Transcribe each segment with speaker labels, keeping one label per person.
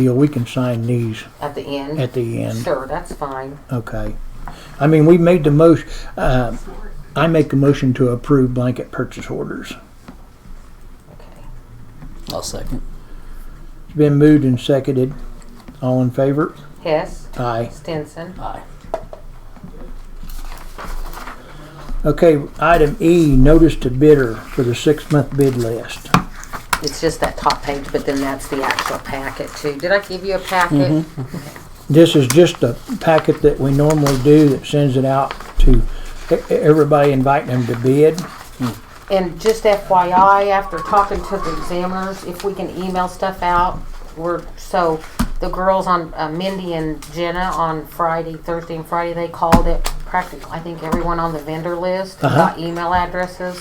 Speaker 1: deal, we can sign these
Speaker 2: at the end?
Speaker 1: at the end.
Speaker 2: Sure, that's fine.
Speaker 1: Okay. I mean, we made the most, uh, I make a motion to approve blanket purchase orders.
Speaker 2: Okay.
Speaker 3: I'll second.
Speaker 1: It's been moved and seconded. All in favor?
Speaker 2: Hess,
Speaker 1: Aye.
Speaker 2: Stinson,
Speaker 3: Aye.
Speaker 1: Okay, item E, notice to bidder for the six-month bid list.
Speaker 2: it's just that top page, but then that's the actual packet too. Did I give you a
Speaker 1: Mm-hmm.
Speaker 2: packet?
Speaker 1: This is just a packet that we normally do that sends it out to e- everybody inviting them to bid.
Speaker 2: And just FYI, after talking to the examiners, if we can email stuff out, we're, so the girls on, uh, Mindy and Jenna on Friday, Thursday and Friday, they called it practically, I think everyone on the vendor list
Speaker 3: Uh-huh.
Speaker 2: got email addresses.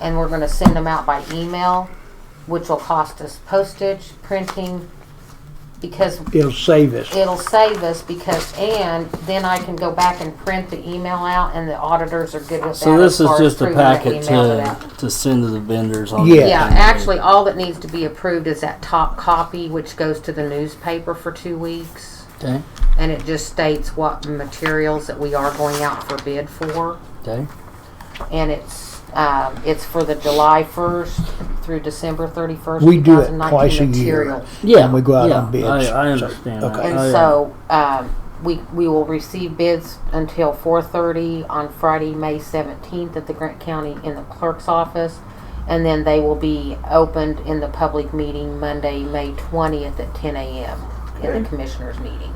Speaker 2: And we're gonna send them out by email, which will cost us postage, printing, because
Speaker 1: It'll save us.
Speaker 2: it'll save us because, and then I can go back and print the email out and the auditors are good with that.
Speaker 3: So
Speaker 2: as
Speaker 3: this is
Speaker 2: far as
Speaker 3: just a
Speaker 2: proving that we
Speaker 3: packet
Speaker 2: mailed it out.
Speaker 3: to, to send to the vendors on.
Speaker 1: Yeah.
Speaker 2: Yeah, actually, all that needs to be approved is that top copy, which goes to the newspaper for two weeks.
Speaker 3: Okay,
Speaker 2: And it just states what materials that we are going out for bid for.
Speaker 3: okay,
Speaker 2: And it's, um, it's for the July first through December thirty-first,
Speaker 1: We
Speaker 2: two
Speaker 1: do it
Speaker 2: thousand
Speaker 1: twice a
Speaker 2: nineteen
Speaker 1: year.
Speaker 2: materials.
Speaker 3: yeah.
Speaker 1: And we go out
Speaker 3: yeah,
Speaker 1: on bids.
Speaker 3: I, I
Speaker 1: So,
Speaker 3: understand that.
Speaker 1: okay.
Speaker 2: And
Speaker 3: Oh, yeah.
Speaker 2: so um, we we will receive bids until 4:30 on Friday, May 17th, at the Grant County in the clerk's office, and then they will be opened in the public meeting Monday, May 20th at 10 a.m. in the commissioners' meeting.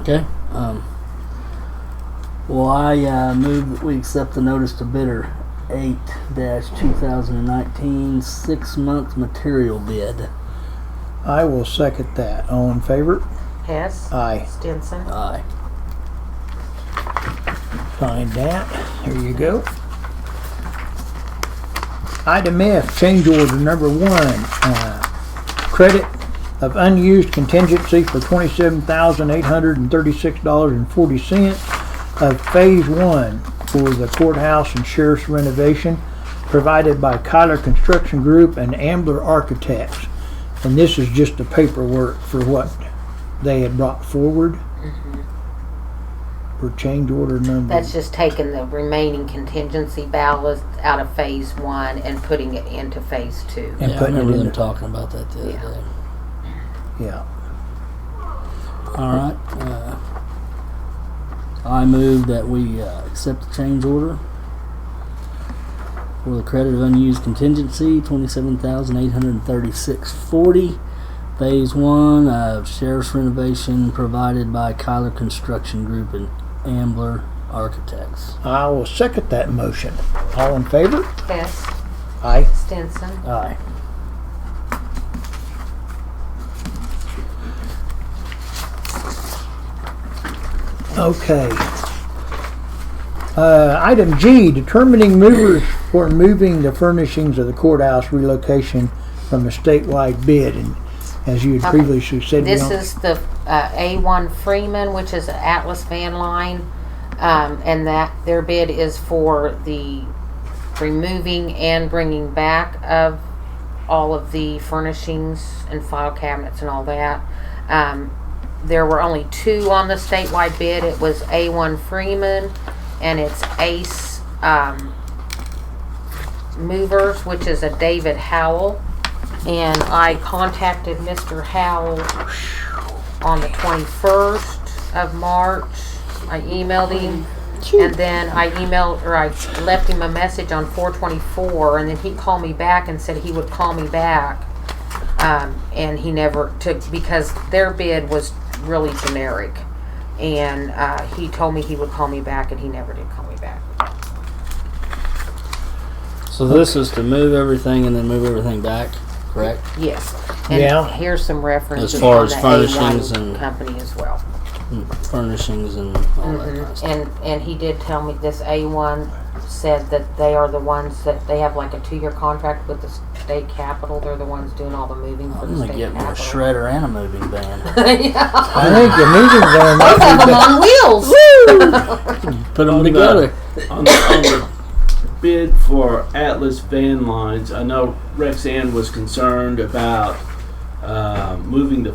Speaker 3: Okay. Um, well, I uh, move that we accept the notice to bidder 8 2019 six month material bid.
Speaker 1: I will second that. All in favor?
Speaker 2: Hess,
Speaker 3: Uh,
Speaker 1: Aye.
Speaker 2: Stinson.
Speaker 3: Aye.
Speaker 1: Find that. There you go. Item F, change order number one, uh, credit of unused contingency for twenty-seven thousand eight hundred and thirty-six dollars and forty cents of phase one for the courthouse and sheriff's renovation provided by Kyler Construction Group and Ambler Architects. And this is just the paperwork for what they had brought forward for change order number.
Speaker 2: That's just taking the remaining contingency ballast out of phase one and putting it into phase two.
Speaker 1: and
Speaker 3: yeah, I
Speaker 1: putting it
Speaker 3: remember
Speaker 1: in
Speaker 3: them
Speaker 1: the-
Speaker 3: talking about that the other
Speaker 2: Yeah.
Speaker 3: day.
Speaker 1: Yeah.
Speaker 3: All right. Uh, I move that we uh, accept the change order for the credit of unused contingency, twenty-seven thousand eight hundred thirty-six forty. Phase one of sheriff's renovation provided by Kyler Construction Group and Ambler Architects.
Speaker 1: I will second that motion. All in favor?
Speaker 2: Hess,
Speaker 1: Aye.
Speaker 2: Stinson.
Speaker 3: Aye.
Speaker 1: Okay. Uh, item G, determining movers for moving the furnishings of the courthouse relocation from a statewide bid. And as you had
Speaker 2: Okay.
Speaker 1: previously said, we
Speaker 2: This
Speaker 1: don't,
Speaker 2: is the uh, A1 Freeman, which is an Atlas Van Line, um, and that their bid is for the removing and bringing back of all of the furnishings and file cabinets and all that. Um, there were only two on the statewide bid. It was A1 Freeman and it's Ace um, Movers, which is a David Howell. And I contacted Mr. Howell on the 21st of March. I emailed him. And then I emailed, or I left him a message on 424, and then he called me back and said he would call me back. Um, and he never took, because their bid was really generic. And, uh, he told me he would call me back, and he never did call me back.
Speaker 3: So this is to move everything and then move everything back, correct?
Speaker 2: Yes.
Speaker 1: Yeah.
Speaker 2: And here's some references
Speaker 3: As far
Speaker 2: on
Speaker 3: as
Speaker 2: the
Speaker 3: furnishings
Speaker 2: A1
Speaker 3: and-
Speaker 2: company as well.
Speaker 3: Furnishings and all that kind of stuff.
Speaker 2: And, and he did tell me this A1 said that they are the ones that, they have like a two-year contract with the state capitol. They're the ones doing all the moving for
Speaker 3: I'm
Speaker 2: the
Speaker 3: gonna
Speaker 2: state
Speaker 3: get me a
Speaker 2: capitol.
Speaker 3: shredder and a moving van.
Speaker 2: Yeah.
Speaker 1: I think the moving van might
Speaker 2: Have
Speaker 1: be
Speaker 2: them
Speaker 1: better.
Speaker 2: on wheels.
Speaker 3: Put them
Speaker 4: On the-
Speaker 3: together.
Speaker 4: on the, on the bid for Atlas Van Lines, I know Rexanne was concerned about uh, moving the